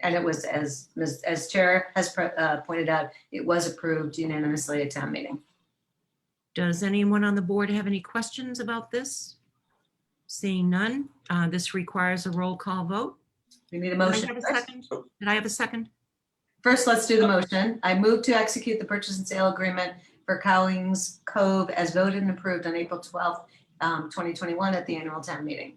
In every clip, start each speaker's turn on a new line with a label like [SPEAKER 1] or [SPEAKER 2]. [SPEAKER 1] and it was, as, Ms. as Chair has pro- uh, pointed out, it was approved unanimously at town meeting.
[SPEAKER 2] Does anyone on the board have any questions about this? Seeing none, uh, this requires a roll call vote.
[SPEAKER 1] We need a
[SPEAKER 2] Did I
[SPEAKER 1] motion.
[SPEAKER 2] have a
[SPEAKER 1] first.
[SPEAKER 2] second? Did I have a second?
[SPEAKER 1] First, let's do the motion. I move to execute the purchase and sale agreement for Collins Cove as voted and approved on April 12th, um, 2021 at the annual town meeting.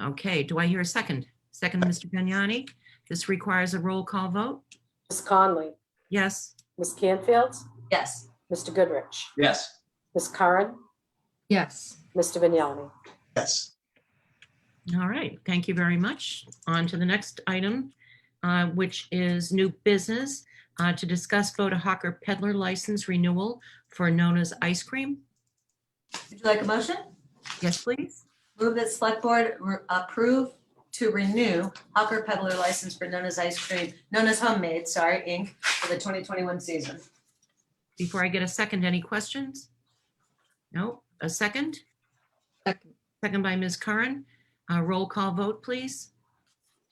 [SPEAKER 2] Okay, do I hear a second? Second, Mr. Vignani. This requires a roll call vote.
[SPEAKER 3] Ms. Conley,
[SPEAKER 2] Yes,
[SPEAKER 3] Ms. Canfield,
[SPEAKER 1] Yes,
[SPEAKER 3] Mr. Goodrich,
[SPEAKER 4] Yes.
[SPEAKER 3] Ms. Curran,
[SPEAKER 5] yes,
[SPEAKER 3] Mr. Vignani.
[SPEAKER 4] Yes.
[SPEAKER 2] all right. Thank you very much. On to the next item, uh, which is new business uh, to discuss Voda Hawker peddler license renewal for Nona's Ice Cream.
[SPEAKER 1] would you like a motion?
[SPEAKER 2] Yes, please.
[SPEAKER 1] Move that select board re- approve to renew Hawker Peddler license for Nona's Ice Cream, Nona's Homemade, sorry, Inc. for the 2021 season.
[SPEAKER 2] Before I get a second, any questions? No, a second?
[SPEAKER 5] second,
[SPEAKER 2] Second by Ms. Curran. Uh, Roll call vote, please.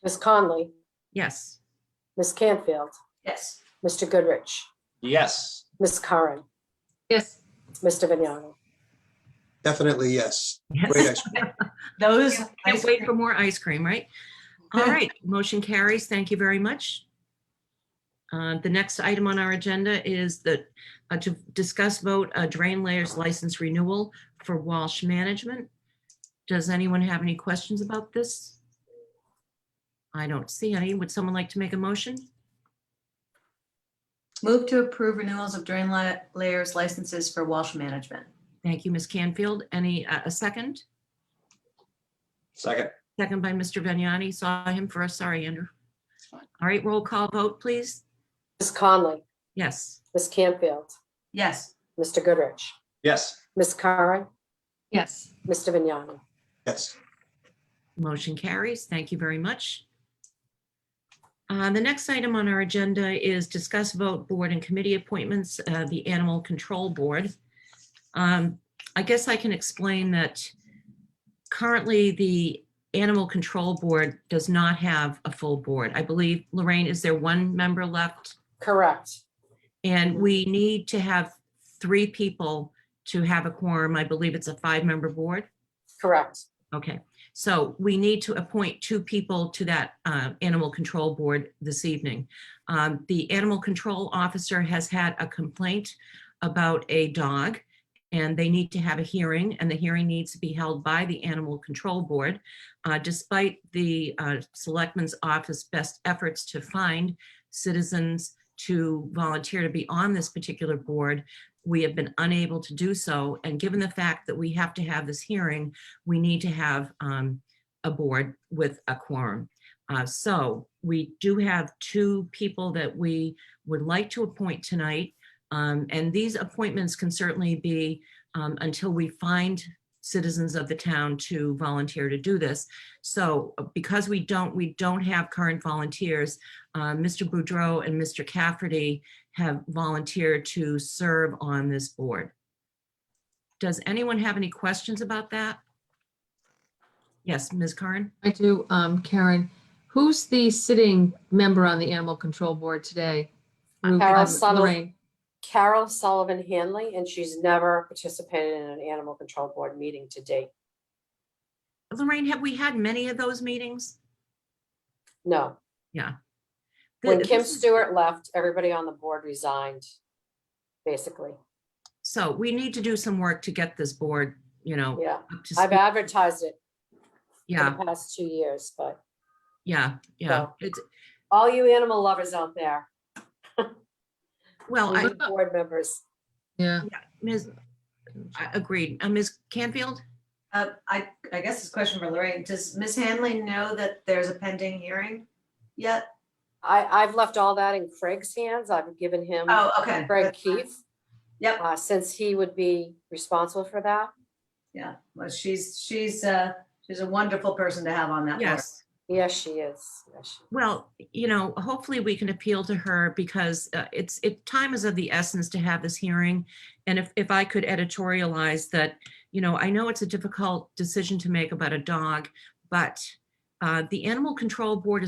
[SPEAKER 3] Ms. Conley,
[SPEAKER 2] Yes.
[SPEAKER 3] Ms. Canfield,
[SPEAKER 1] Yes,
[SPEAKER 3] Mr. Goodrich,
[SPEAKER 4] Yes.
[SPEAKER 3] Ms. Curran,
[SPEAKER 5] yes,
[SPEAKER 3] Mr. Vignani.
[SPEAKER 6] Definitely, yes. Great
[SPEAKER 2] Yes.
[SPEAKER 6] ice cream.
[SPEAKER 1] those.
[SPEAKER 2] Can't wait for more ice cream, right? All right, motion carries. Thank you very much. Uh, The next item on our agenda is the, uh, to discuss vote a drain layers license renewal for Walsh Management. Does anyone have any questions about this? I don't see any. Would someone like to make a motion?
[SPEAKER 1] Move to approve renewals of drain la- layers licenses for Walsh Management.
[SPEAKER 2] Thank you, Ms. Canfield. Any, uh, a second?
[SPEAKER 4] Second.
[SPEAKER 2] Second by Mr. Vignani. Saw him first. Sorry, Andrew. All right, roll call vote, please.
[SPEAKER 3] Ms. Conley,
[SPEAKER 2] Yes.
[SPEAKER 3] Ms. Canfield,
[SPEAKER 1] Yes.
[SPEAKER 3] Mr. Goodrich,
[SPEAKER 4] Yes.
[SPEAKER 3] Ms. Curran,
[SPEAKER 5] yes.
[SPEAKER 3] Mr. Vignani.
[SPEAKER 6] Yes.
[SPEAKER 2] Motion carries. Thank you very much. Uh, The next item on our agenda is discuss vote board and committee appointments, uh, the Animal Control Board. Um, I guess I can explain that currently the Animal Control Board does not have a full board. I believe, Lorraine, is there one member left?
[SPEAKER 3] Correct.
[SPEAKER 2] And we need to have three people to have a quorum. I believe it's a five-member board.
[SPEAKER 3] Correct.
[SPEAKER 2] Okay, so we need to appoint two people to that uh, Animal Control Board this evening. Um, The Animal Control Officer has had a complaint about a dog, and they need to have a hearing, and the hearing needs to be held by the Animal Control Board. Uh, Despite the uh, Selectman's Office best efforts to find citizens to volunteer to be on this particular board, we have been unable to do so. And given the fact that we have to have this hearing, we need to have um, a board with a quorum. Uh, So we do have two people that we would like to appoint tonight. Um, And these appointments can certainly be um, until we find citizens of the town to volunteer to do this. So uh, because we don't, we don't have current volunteers, uh, Mr. Boudreau and Mr. Cafferty have volunteered to serve on this board. Does anyone have any questions about that? Yes, Ms. Curran?
[SPEAKER 5] I do, um, Karen, who's the sitting member on the Animal Control Board today? Ru-
[SPEAKER 3] Carol
[SPEAKER 5] um,
[SPEAKER 3] Suttle.
[SPEAKER 5] Lorraine.
[SPEAKER 3] Carol Sullivan Hanley, and she's never participated in an animal control board meeting to date.
[SPEAKER 2] Lorraine, have we had many of those meetings?
[SPEAKER 3] No. When
[SPEAKER 2] The-
[SPEAKER 3] Kim Stewart left, everybody on the board resigned, basically.
[SPEAKER 2] So we need to do some work to get this board, you know,
[SPEAKER 3] Yeah.
[SPEAKER 2] up to
[SPEAKER 3] I've
[SPEAKER 2] speed.
[SPEAKER 3] advertised it for
[SPEAKER 2] Yeah,
[SPEAKER 3] the past two years, but
[SPEAKER 2] yeah, yeah.
[SPEAKER 3] So-
[SPEAKER 2] It's,
[SPEAKER 3] all you animal lovers out there,
[SPEAKER 2] well,
[SPEAKER 3] you
[SPEAKER 2] Oh, I,
[SPEAKER 3] new board members,
[SPEAKER 5] Yeah,
[SPEAKER 2] Ms., I agreed. Uh, Ms. Canfield?
[SPEAKER 1] Uh, I, I guess this question for Lorraine, does Ms. Hanley know that there's a pending hearing yet?
[SPEAKER 3] I, I've left all that in Craig's hands. I've given him
[SPEAKER 1] Oh, okay.
[SPEAKER 3] Craig Keith,
[SPEAKER 1] Yep,
[SPEAKER 3] uh, since he would be responsible for that.
[SPEAKER 1] yeah, well, she's, she's, uh, she's a wonderful person to have on that board.
[SPEAKER 2] Yes.
[SPEAKER 3] Yes, she is. Yes, she-
[SPEAKER 2] Well, you know, hopefully we can appeal to her because uh, it's, it, time is of the essence to have this hearing. And if, if I could editorialize that, you know, I know it's a difficult decision to make about a dog, but uh, the Animal Control Board is.